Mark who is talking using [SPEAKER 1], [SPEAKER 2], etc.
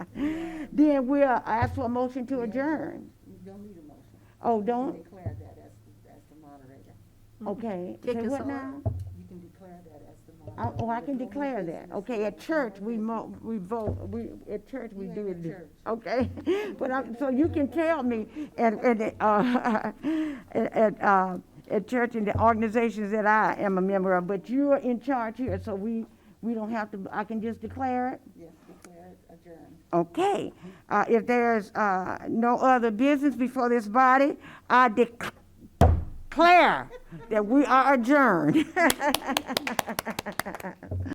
[SPEAKER 1] Then we'll ask for a motion to adjourn.
[SPEAKER 2] You don't need a motion.
[SPEAKER 1] Oh,
[SPEAKER 2] You can
[SPEAKER 1] don't,
[SPEAKER 2] Declare that as, the- as the moderator.
[SPEAKER 1] okay.
[SPEAKER 3] Kick
[SPEAKER 1] Say
[SPEAKER 3] us
[SPEAKER 1] what
[SPEAKER 3] off.
[SPEAKER 1] now?
[SPEAKER 2] You can declare that as the
[SPEAKER 1] Oh,
[SPEAKER 2] moderator.
[SPEAKER 1] oh, I
[SPEAKER 2] There's
[SPEAKER 1] can
[SPEAKER 2] no more
[SPEAKER 1] declare that.
[SPEAKER 2] business.
[SPEAKER 1] Okay, at
[SPEAKER 2] There's no
[SPEAKER 1] church,
[SPEAKER 2] more
[SPEAKER 1] we
[SPEAKER 2] business.
[SPEAKER 1] mo, we vote, we, at church, we
[SPEAKER 2] You
[SPEAKER 1] do
[SPEAKER 2] ain't at
[SPEAKER 1] it.
[SPEAKER 2] church.
[SPEAKER 1] Okay, but I'm, so you can tell me at, at, uh, at- at, uh, at church and the organizations that I am a member of, but you're in charge here, so we, we don't have to, I can just declare it?
[SPEAKER 2] Yes, declare it adjourned.
[SPEAKER 1] Okay, uh, if there's, uh, no other business before this body, I dec- declare that we are adjourned.